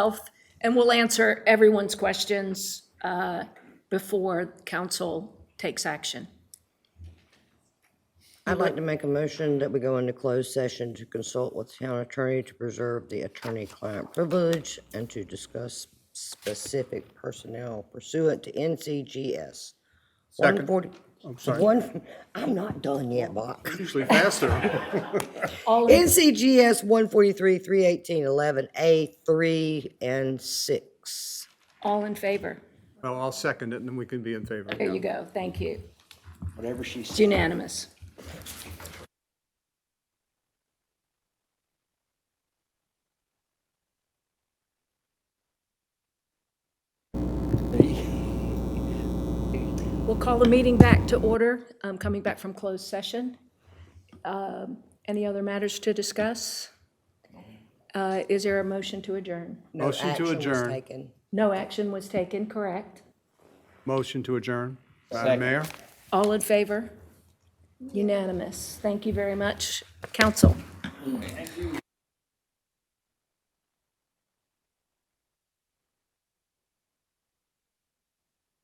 Health, and we'll answer everyone's questions uh, before council takes action. I'd like to make a motion that we go into closed session to consult with town attorney to preserve the attorney-client privilege and to discuss specific personnel pursuant to NCGS. Second. 140 I'm sorry. One, I'm not done yet, Bach. Usually faster. All in NCGS 143, 318, 11A, 3 and 6. all in favor? Well, I'll second it, and then we can be in favor. There you go, thank you. whatever she said. It's unanimous. We'll call the meeting back to order, Um, coming back from closed session. Um, Any other matters to discuss? Uh, Is there a motion to adjourn? Motion to adjourn. No action was taken, correct? Motion to adjourn. Madam Mayor? All in favor? Unanimous. Thank you very much, council.